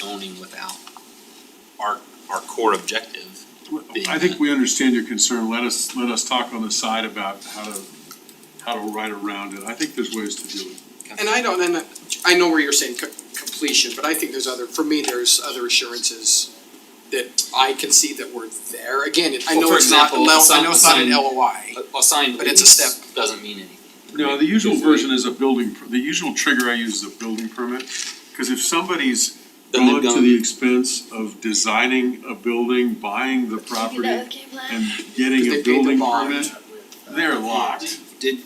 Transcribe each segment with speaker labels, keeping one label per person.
Speaker 1: zoning without our, our core objective being.
Speaker 2: I think we understand your concern, let us, let us talk on the side about how to, how to right around it, I think there's ways to do it.
Speaker 3: And I don't, and I- I know where you're saying co- completion, but I think there's other, for me, there's other assurances that I can see that we're there. Again, it- I
Speaker 1: Well,
Speaker 3: know
Speaker 1: for
Speaker 3: it's not, a
Speaker 1: example,
Speaker 3: L- I
Speaker 1: some-
Speaker 3: know it's not an
Speaker 1: some-
Speaker 3: LOI.
Speaker 1: A, a signed
Speaker 3: But it's a
Speaker 1: lease
Speaker 3: step.
Speaker 1: doesn't mean anything.
Speaker 2: No, the usual version is a building, per- the usual trigger I use is a building permit, cause if somebody's
Speaker 1: Then they've
Speaker 2: gone to the
Speaker 1: done-
Speaker 2: expense of designing a building, buying the property,
Speaker 4: Did you know it came
Speaker 2: and
Speaker 4: last?
Speaker 2: getting
Speaker 3: Because they
Speaker 2: a
Speaker 3: paid the
Speaker 2: building
Speaker 3: bond.
Speaker 2: permit, they're locked.
Speaker 5: Did,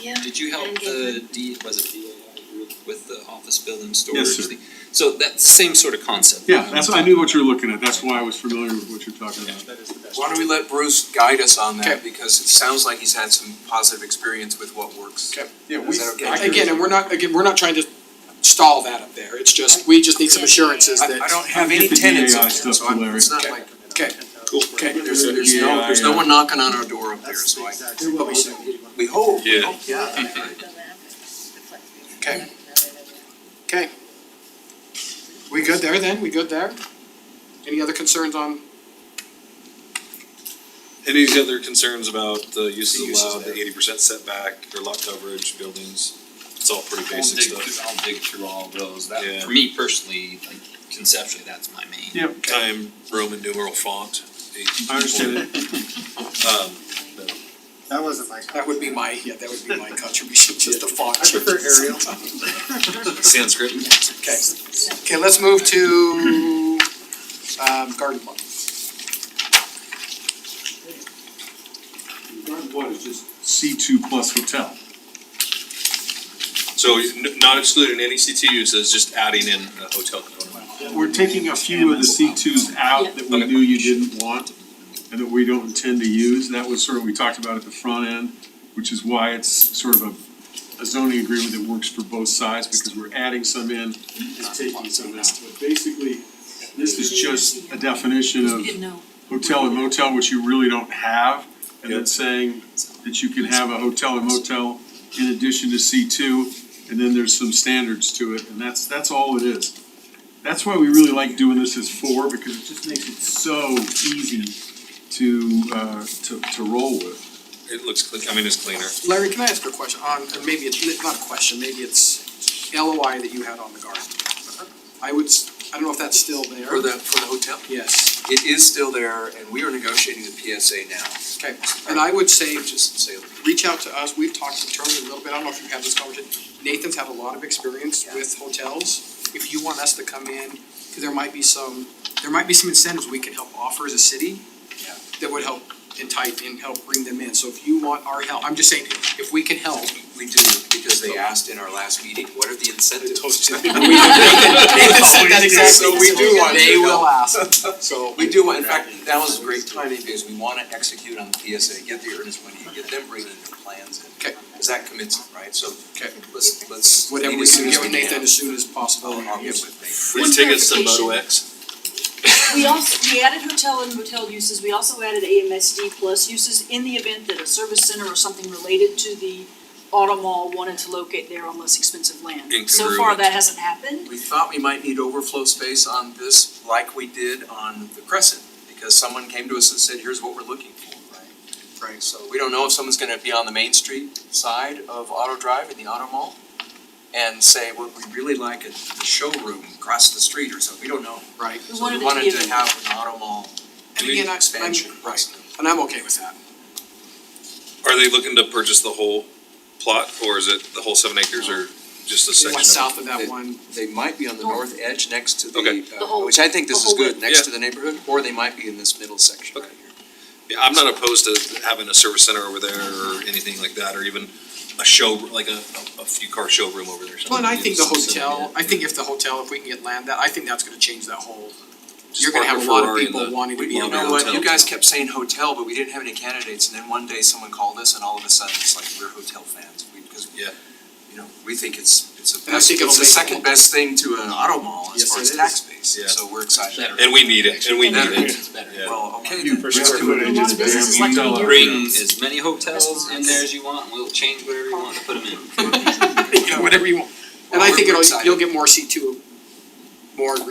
Speaker 4: Yeah.
Speaker 5: did you help the D, was it DAI group with the office building storage?
Speaker 2: Yes, sir.
Speaker 5: thing? So that's the same sort of concept.
Speaker 2: Yeah, that's, I knew what you were looking at, that's why I was familiar with what you're talking about.
Speaker 6: Why don't we let Bruce guide us on
Speaker 3: Okay.
Speaker 6: that, because it sounds like he's had some positive experience with what works.
Speaker 3: Okay.
Speaker 2: Yeah,
Speaker 6: Is that okay?
Speaker 3: Again, and we're not, again, we're not trying to stall that up there. It's just, we just need some assurances
Speaker 6: I,
Speaker 3: that.
Speaker 6: I don't have any
Speaker 2: Get the
Speaker 6: tenants in
Speaker 2: DAI
Speaker 6: there,
Speaker 2: stuff
Speaker 6: so I'm,
Speaker 2: to
Speaker 6: it's not
Speaker 3: Larry.
Speaker 6: like,
Speaker 3: Okay,
Speaker 6: cool, okay, there's, there's no, there's no
Speaker 2: DAI.
Speaker 6: one knocking on our door up there, so I,
Speaker 3: there will be some.
Speaker 6: we hope, we
Speaker 1: Yeah.
Speaker 6: hope, yeah.
Speaker 3: Okay. Okay. We good there then? We good there? Any other concerns on,
Speaker 7: Any other concerns about the
Speaker 6: The
Speaker 7: uses
Speaker 6: uses
Speaker 7: allowed, the
Speaker 6: there.
Speaker 7: eighty percent setback, or lot coverage, buildings? It's all pretty
Speaker 1: I'll
Speaker 7: basic
Speaker 1: dig
Speaker 7: stuff.
Speaker 1: through, I'll dig through all of those, that,
Speaker 7: Yeah.
Speaker 1: for me personally, like conceptually, that's my main.
Speaker 2: Yep,
Speaker 7: Time Roman numeral font. eight.
Speaker 2: I understand it.
Speaker 7: Um,
Speaker 8: That wasn't my.
Speaker 3: that would be my, yeah, that would be my contribution, just the font.
Speaker 8: I prefer Arial.
Speaker 7: Um, Sanskrit.
Speaker 3: Okay, okay, let's move to, um, garden club.
Speaker 2: Garden One is just C two plus hotel.
Speaker 7: So n- not excluding any CT uses, just adding in a hotel component.
Speaker 2: We're taking a few of the C twos out that we knew you didn't want and that we don't intend to use. That was sort of, we talked about at the front end, which is why it's sort of a, a zoning agreement that works for both sides because we're adding some in and taking some out. But basically, this is just a definition of hotel and motel, which you really don't have. And then
Speaker 7: Yep.
Speaker 2: saying that you can have a hotel and motel in addition to C two, and then there's some standards to it, and that's, that's all it is. That's why we really like doing this as four, because it just makes it so easy to, uh, to, to roll with.
Speaker 7: It looks clean, I mean, it's cleaner.
Speaker 3: Larry, can I ask a question on, and maybe it's, not a question, maybe it's LOI that you had on the garden. I would, s- I don't know if that's still there.
Speaker 6: For the, for the hotel,
Speaker 3: Yes,
Speaker 6: it is still there, and we are negotiating the PSA now,
Speaker 3: okay, and I would say,
Speaker 6: just say,
Speaker 3: reach out to us, we've talked internally a little bit, I don't know if you've had this conversation. Nathan's had a lot of experience with hotels, if you want us to come in, cause there might be some, there might be some incentives we can help offer as a city. That would help entice and help bring them in, so if you want our help, I'm just saying, if we can help.
Speaker 6: we do, because they asked in our last meeting, what are the incentives?
Speaker 3: Nathan said that exactly.
Speaker 6: So we do want to
Speaker 3: They will
Speaker 6: help.
Speaker 3: ask.
Speaker 6: So we do, want- in fact, that was great timing because we wanna execute on the PSA, get the earnest money, get them bringing the plans in.
Speaker 3: Okay.
Speaker 6: Cause that commits it, right? So
Speaker 3: Okay.
Speaker 6: let's, let's.
Speaker 3: Whatever
Speaker 6: meet
Speaker 3: we
Speaker 6: as
Speaker 3: can
Speaker 6: soon as
Speaker 3: get with
Speaker 6: we
Speaker 3: Nathan
Speaker 6: can.
Speaker 3: as soon as possible.
Speaker 6: I'll get
Speaker 3: Yes.
Speaker 6: with Nathan.
Speaker 7: Free tickets to Moto X.
Speaker 9: We also, we added hotel and motel uses, we also added AMSD plus uses in the event that a service center or something related to the auto mall wanted to locate there on less expensive land. So far,
Speaker 7: Incongruent.
Speaker 9: that hasn't happened.
Speaker 6: We thought we might need overflow space on this like we did on the Crescent, because someone came to us and said, here's what we're looking for, right? Right, so we don't know if someone's gonna be on the Main Street side of Auto Drive in the Auto Mall and say, well, we really like a showroom across the street or something, we don't know.
Speaker 3: Right,
Speaker 9: We
Speaker 6: So
Speaker 9: wanted
Speaker 6: we
Speaker 9: it to be
Speaker 6: wanted
Speaker 9: a.
Speaker 6: to have an Auto Mall
Speaker 3: and again, I, I'm,
Speaker 6: expansion,
Speaker 3: right,
Speaker 6: right?
Speaker 3: and I'm okay with that.
Speaker 7: Are they looking to purchase the whole plot, or is it the whole seven acres, or just a
Speaker 3: Just
Speaker 7: section of it?
Speaker 3: south of that
Speaker 6: It-
Speaker 3: one,
Speaker 6: They might be on the
Speaker 9: North.
Speaker 6: north edge next to
Speaker 7: Okay.
Speaker 6: the,
Speaker 9: The
Speaker 6: uh,
Speaker 9: whole
Speaker 6: which I think this
Speaker 9: the
Speaker 6: is
Speaker 9: whole
Speaker 6: good,
Speaker 9: width.
Speaker 6: next
Speaker 7: Yeah.
Speaker 6: to the neighborhood, or they might be in this middle section right here.
Speaker 7: Yeah, I'm not opposed to having a service center over there or anything like that, or even a show, like a, a few car showroom over there or something.
Speaker 3: well, and I think the
Speaker 7: Yeah, something
Speaker 3: hotel,
Speaker 7: like that.
Speaker 3: I think if the hotel, if we can get land that, I think that's gonna change that whole,
Speaker 7: Just
Speaker 3: you're gonna
Speaker 7: park
Speaker 3: have a
Speaker 7: your
Speaker 3: lot of
Speaker 7: Ferrari in the-
Speaker 3: people wanting to
Speaker 7: we
Speaker 3: be in
Speaker 7: love
Speaker 3: there.
Speaker 7: your
Speaker 6: You know what, you
Speaker 7: hotel.
Speaker 6: guys kept saying hotel, but we didn't have any candidates, and then one day someone called us, and all of a sudden, it's like, we're hotel fans, we, because,
Speaker 7: Yeah.
Speaker 6: you know, we think it's, it's a
Speaker 3: And I
Speaker 6: best,
Speaker 3: think it'll
Speaker 6: it's the
Speaker 3: make-
Speaker 6: second best thing to an auto mall as
Speaker 3: Yes,
Speaker 6: far
Speaker 3: it
Speaker 6: as
Speaker 3: is.
Speaker 6: tax base,
Speaker 7: Yeah.
Speaker 6: so we're excited.
Speaker 1: Better.
Speaker 7: And we need it, and we
Speaker 9: And
Speaker 7: need
Speaker 6: that
Speaker 7: it.
Speaker 1: It's better.
Speaker 7: Yeah.
Speaker 6: Well, okay,
Speaker 2: You
Speaker 6: then,
Speaker 2: for
Speaker 6: let's
Speaker 2: square
Speaker 6: do it.
Speaker 9: A lot of businesses like to be here.
Speaker 1: Bring as many hotels in there as you want, we'll change whatever you want to put them in.
Speaker 3: Whatever you want. And
Speaker 6: Well,
Speaker 3: I
Speaker 6: we're-
Speaker 3: think
Speaker 6: we're
Speaker 3: it'll,
Speaker 6: excited.
Speaker 3: you'll get more C two, more